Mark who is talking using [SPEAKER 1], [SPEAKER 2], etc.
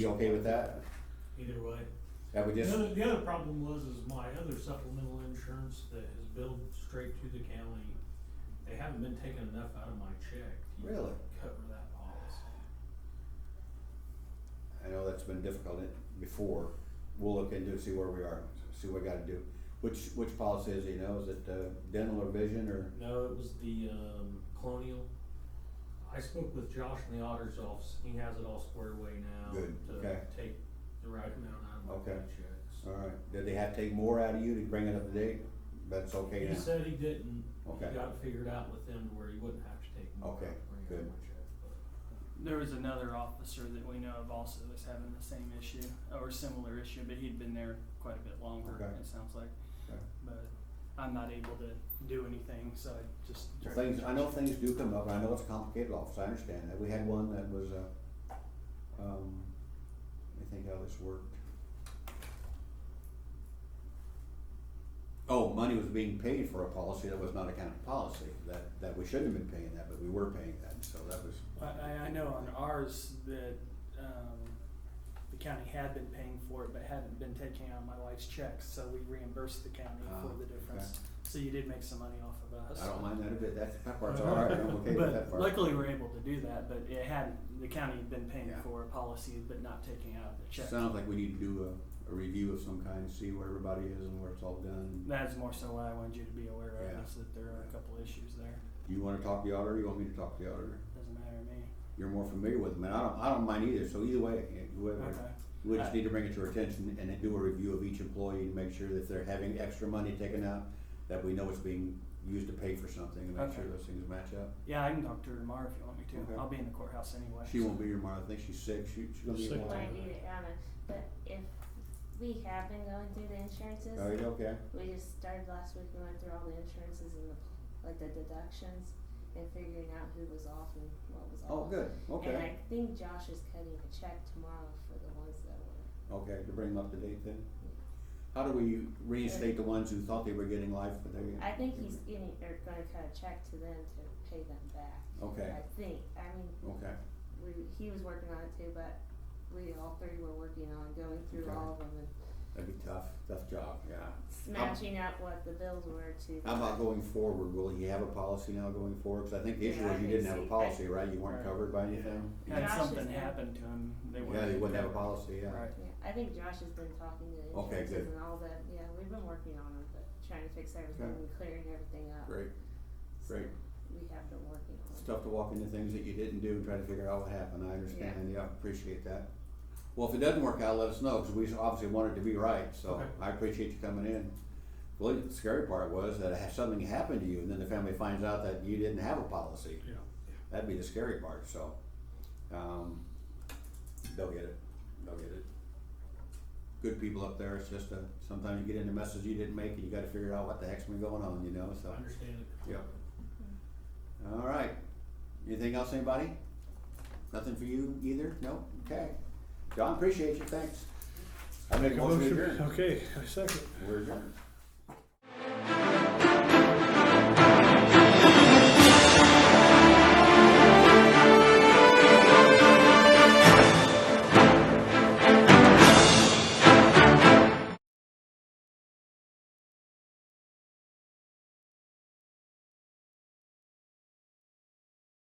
[SPEAKER 1] You okay with that?
[SPEAKER 2] either way.
[SPEAKER 1] That we just,
[SPEAKER 2] The other, the other problem was is my other supplemental insurance that is billed straight to the county, they haven't been taking enough out of my check to
[SPEAKER 1] Really?
[SPEAKER 2] cover that policy.
[SPEAKER 1] I know that's been difficult it- before, we'll look into, it, see where we are, see what we gotta do. Which, which policy is, it, you know, is it uh, dental or vision or,
[SPEAKER 2] No, it was the, um, Colonial. I spoke with Josh in the auditor's office, he has it all squared away now
[SPEAKER 1] Good,
[SPEAKER 2] to
[SPEAKER 1] okay.
[SPEAKER 2] take the right amount out of my
[SPEAKER 1] Okay.
[SPEAKER 2] paychecks.
[SPEAKER 1] alright, did they have to take more out of you to bring it up to date? That's okay
[SPEAKER 2] He
[SPEAKER 1] now?
[SPEAKER 2] said he didn't, he
[SPEAKER 1] Okay.
[SPEAKER 2] got it figured out with them to where he wouldn't have to take more.
[SPEAKER 1] Okay,
[SPEAKER 2] out of
[SPEAKER 1] good.
[SPEAKER 2] my check, but-
[SPEAKER 3] There was another officer that we know of also was having the same issue or similar issue, but he'd been there quite a bit longer,
[SPEAKER 1] Okay.
[SPEAKER 3] it sounds like.
[SPEAKER 1] Okay.
[SPEAKER 3] But I'm not able to do anything, so I just.
[SPEAKER 1] Well, Things, I know things do come up, and I know it's a complicated office, I understand that, we had one that was, uh, um, let me think how this worked. Oh, money was being paid for a policy that was not a county policy, that, that we shouldn't have been paying that, but we were paying that, so that was,
[SPEAKER 3] I, I, I know on ours that, um, the county had been paying for it, but hadn't been taking out my wife's checks, so we reimbursed the county
[SPEAKER 1] Ah,
[SPEAKER 3] for the
[SPEAKER 1] okay.
[SPEAKER 3] difference. So you did make some money off of us.
[SPEAKER 1] I don't mind that a bit, that's, that part's all right, I'm okay with that
[SPEAKER 3] Uh-huh. But
[SPEAKER 1] part.
[SPEAKER 3] luckily, we're able to do that, but it had, the county had been paying
[SPEAKER 1] Yeah.
[SPEAKER 3] for a policy, but not taking out the check.
[SPEAKER 1] Sounds like we need to do a, a review of some kind, see where everybody is and where it's all done.
[SPEAKER 3] That's more so what I wanted you to be aware
[SPEAKER 1] Yeah.
[SPEAKER 3] of, is that there are a couple issues there,
[SPEAKER 1] You wanna talk to the auditor, you want me to talk to the auditor?
[SPEAKER 3] doesn't matter to me.
[SPEAKER 1] you're more familiar with them, and I don't, I don't mind either, so either way, eh, whoever.
[SPEAKER 3] Okay,
[SPEAKER 1] We just need to bring it to our attention and then do a review of each employee and make sure that they're having extra money taken out, that we know it's being used to pay for something and make sure
[SPEAKER 3] Okay.
[SPEAKER 1] those things match up.
[SPEAKER 3] yeah, I can talk to her tomorrow if you want me
[SPEAKER 1] Okay.
[SPEAKER 3] to, I'll be in the courthouse anyway.
[SPEAKER 1] She
[SPEAKER 3] so-
[SPEAKER 1] won't be here tomorrow, I think she's sick, she, she's gonna be.
[SPEAKER 2] Sick.
[SPEAKER 1] here
[SPEAKER 4] Well, I
[SPEAKER 1] tomorrow.
[SPEAKER 4] do it, I know, but if we have been going through the insurances,
[SPEAKER 1] Are Oh, you okay?
[SPEAKER 4] we just started last week, we went through all the insurances and the, like the deductions and figuring out who was off and what was
[SPEAKER 1] Oh,
[SPEAKER 4] off.
[SPEAKER 1] good,
[SPEAKER 4] And I
[SPEAKER 1] okay,
[SPEAKER 4] think Josh is cutting a check tomorrow for the ones that were,
[SPEAKER 1] okay, to bring them up to date then. How do we reinstate the ones who thought they were getting life, but they,
[SPEAKER 4] I think he's getting, or gonna cut a check to them to pay them back,
[SPEAKER 1] okay,
[SPEAKER 4] I think, I mean,
[SPEAKER 1] okay,
[SPEAKER 4] we, he was working on it too, but we all three were working on going through
[SPEAKER 1] Okay.
[SPEAKER 4] all of them and
[SPEAKER 1] that'd be tough, tough job, yeah.
[SPEAKER 4] smashing out what the bills were to.
[SPEAKER 1] How about going forward, will he have a policy now going forward? Cause I think the issue
[SPEAKER 4] Yeah, I
[SPEAKER 1] was you
[SPEAKER 4] think
[SPEAKER 1] didn't have a
[SPEAKER 4] so.
[SPEAKER 1] policy, right? You weren't
[SPEAKER 3] Right.
[SPEAKER 1] covered by anything?
[SPEAKER 3] Had
[SPEAKER 4] Josh is
[SPEAKER 3] something
[SPEAKER 4] gonna-
[SPEAKER 3] happened to him, they wouldn't.
[SPEAKER 1] Yeah, they wouldn't have a policy, yeah.
[SPEAKER 3] Right,
[SPEAKER 4] Yeah, I think Josh has been talking to the
[SPEAKER 1] Okay,
[SPEAKER 4] insurances
[SPEAKER 1] good.
[SPEAKER 4] and all that, yeah, we've been working on it, but trying to fix everything
[SPEAKER 1] Okay.
[SPEAKER 4] and clearing everything up.
[SPEAKER 1] Great,
[SPEAKER 4] So
[SPEAKER 1] great.
[SPEAKER 4] We have been working on
[SPEAKER 1] It's
[SPEAKER 4] it.
[SPEAKER 1] tough to walk into things that you didn't do and try to figure out what happened, I understand, yeah, appreciate that. Well, if it doesn't work out, let us know, cause we obviously want it to be right, so
[SPEAKER 2] Okay.
[SPEAKER 1] I appreciate you coming in. Well, the scary part was that ha- something happened to you and then the family finds out that you didn't have a policy.
[SPEAKER 2] Yeah.
[SPEAKER 1] That'd be the scary part, so, um, they'll get it, they'll get it. Good people up there, it's just a, sometimes you get into messages you didn't make and you gotta figure out what the heck's been going on, you know, so.
[SPEAKER 2] I understand it.
[SPEAKER 1] Yeah. All right, anything else, anybody? Nothing for you either, no, okay. John, appreciate you, thanks. I make a motion to adjourn.
[SPEAKER 5] Okay, I second.
[SPEAKER 1] We're adjourned.